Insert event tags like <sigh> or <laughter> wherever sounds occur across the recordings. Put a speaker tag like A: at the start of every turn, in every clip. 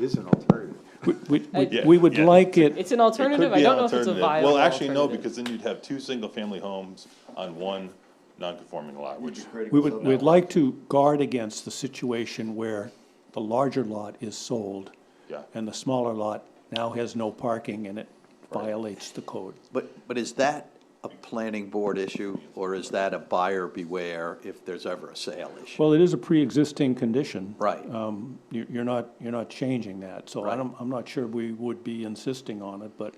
A: is an alternative.
B: We- we- we-
C: Yeah,
B: We would
D: yeah.
B: like it,
C: It's an alternative, I don't know if it's a viable
D: Well, actually, no,
C: alternative.
D: because then you'd have two single-family homes on one non-conforming lot, which,
B: we would, we'd like to guard against the situation where the larger lot is sold
D: yeah.
B: and the smaller lot now has no parking and it violates the code.
E: But, but is that a planning board issue, or is that a buyer beware if there's ever a sale issue?
B: Well, it is a pre-existing condition.
E: Right.
B: Um, you, you're not, you're not changing that, so I
E: Right.
B: don't, I'm not sure we would be insisting on it, but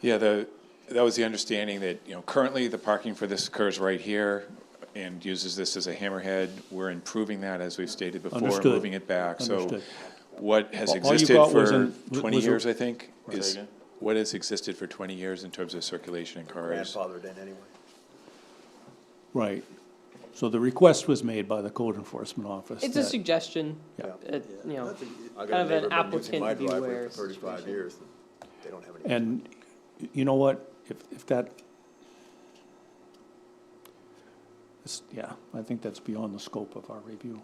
F: Yeah, the, that was the understanding that, you know, currently the parking for this occurs right here and uses this as a hammerhead. We're improving that, as we've stated before,
B: Understood.
F: moving it back. So
B: Understood.
F: what has
B: All you
F: existed
B: got was
F: for
B: an- was-
F: twenty
B: was a-
F: years, I think,
D: Say
F: is,
D: again?
F: what has existed for twenty years in terms of circulation in cars?
E: Grandfathered in anyway.
B: Right. So the request was made by the code enforcement office.
C: It's a
B: that-
C: suggestion, uh, you know, kind of an applicant beware
A: Thirty-five
C: situation.
A: years, they don't have any.
B: And y- you know what, if, if that, it's- yeah, I think that's beyond the scope of our review.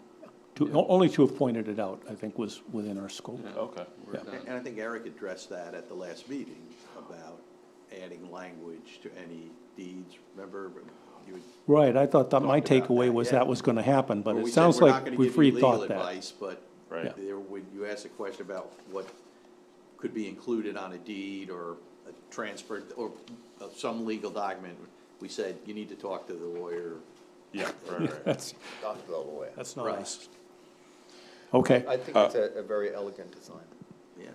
B: To, o- only to have pointed it out, I think, was within our scope.
D: Okay.
E: And and I think Eric addressed that at the last meeting about adding language to any deeds, remember? you had-
B: Right, I thought that my
E: Talked about
B: takeaway
E: that,
B: was
E: yeah.
B: that was gonna happen, but
E: where
B: it
E: we said
B: sounds
E: we're not
B: like
E: gonna
B: we
E: give you legal
B: rethought that.
E: advice, But
D: Right.
B: Yeah.
E: there, when you asked a question about what could be included on a deed or a transfer, or uh, some legal document, we said, you need to talk to the lawyer.
D: Yeah,
A: <laughs>
D: right,
B: <laughs>
D: right.
B: That's,
A: Talk to the lawyer.
B: that's not
E: Right.
B: us. Okay,
A: I think it's a, a very elegant design.
E: Yeah.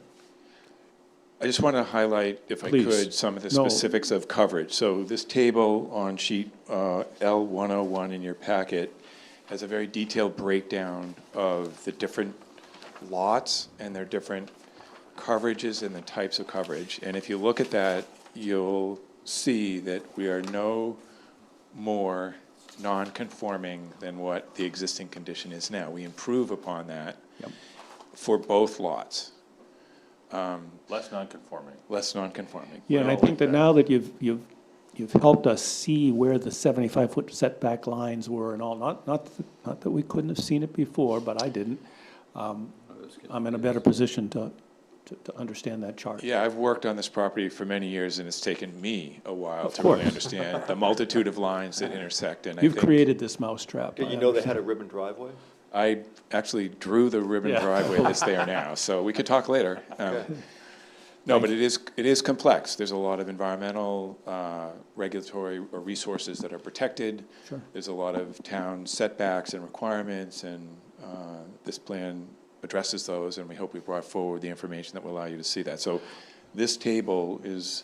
F: I just want to highlight, if I
B: Please.
F: could, some of the
B: No.
F: specifics of coverage. So this table on sheet L one oh one in your packet has a very detailed breakdown of the different lots and their different coverages and the types of coverage. And if you look at that, you'll see that we are no more non-conforming than what the existing condition is now. We improve upon that for both lots,
D: Less non-conforming.
F: less non-conforming.
B: yeah, and I think
F: uh,
B: that now that you've, you've, you've helped us see where the seventy-five foot setback lines were and all, not, not, th- not that we couldn't have seen it before, but I didn't. um, I'm in a better position to, to, to understand that chart.
F: Yeah, I've worked on this property for many years, and it's taken me a while
B: Of
F: to really
B: course.
F: understand the multitude of lines that intersect, and I
B: You've
F: think-
B: created this mousetrap. I understand.
A: a ribbon driveway?
F: I actually drew the ribbon
B: Yeah.
F: driveway that's there
B: <laughs>
F: now, so we could talk later. Um, No, but it is, it is complex. There's a lot of environmental, uh, regulatory or resources that are protected.
B: Sure.
F: There's a lot of town setbacks and requirements, and uh, this plan addresses those, and we hope we brought forward the information that will allow you to see that. So this table is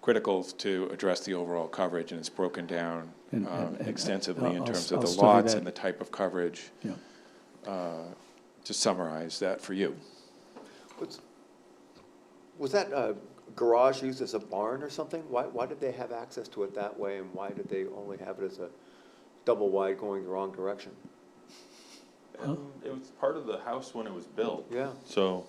F: critical to address the overall coverage, and it's broken down
B: And-
F: um,
B: and- and
F: extensively in
B: I'll-
F: terms
B: I'll
F: of the
B: study
F: lots
B: that.
F: and the type of coverage
B: Yeah.
F: uh, to summarize that for you.
A: Was- Was that uh, garage used as a barn or something? Why, why did they have access to it that way, and why did they only have it as a double wide going the wrong direction?
D: It was part of the house when it was built.
A: Yeah,
D: So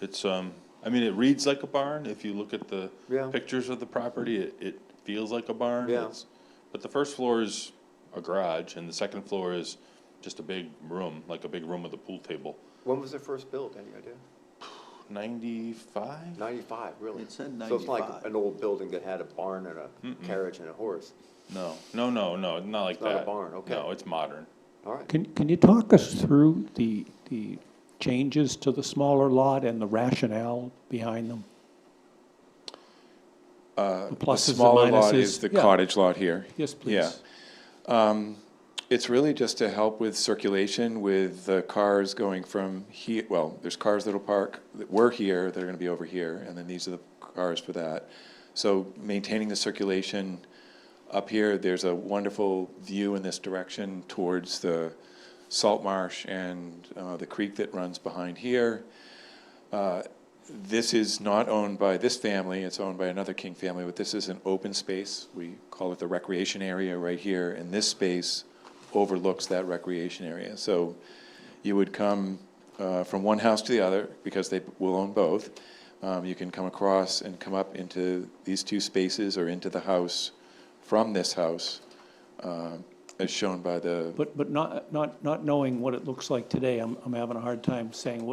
D: it's, um, I mean, it reads like a barn. If you look at the
A: Yeah.
D: pictures of the property, it, it feels like a barn.
A: Yeah.
D: It's- But the first floor is a garage and the second floor is just a big room, like a big room with a pool table.
A: when was it first built, any idea?
D: Ninety-five?
A: Ninety-five, really?
E: It said
A: So it's not like
E: 95.
A: an old building that had a barn and a carriage and a horse.
D: No, no, no, no, not like
A: It's not a
D: that.
A: barn, okay.
D: No, it's modern.
A: All right,
B: Can, can you talk us through the, the changes to the smaller lot and the rationale behind them?
F: Uh,
B: The
F: The
B: pluses and
F: smaller lot
B: minuses,
F: is the
B: yeah.
F: cottage lot here.
B: Yes,
F: Yeah.
B: please.
F: It's really just to help with circulation with the cars going from here, well, there's cars that'll park, that were here, that are gonna be over here, and then these are the cars for that. So maintaining the circulation up here, there's a wonderful view in this direction towards the salt marsh and uh, the creek that runs behind here. Uh, This is not owned by this family, it's owned by another King family, but this is an open space. We call it the recreation area right here, and this space overlooks that recreation area. So you would come uh, from one house to the other, because they will own both. Um, You can come across and come up into these two spaces or into the house from this house, uh, as shown by the
B: But, but not, not, not knowing what it looks like today, I'm, I'm having a hard time saying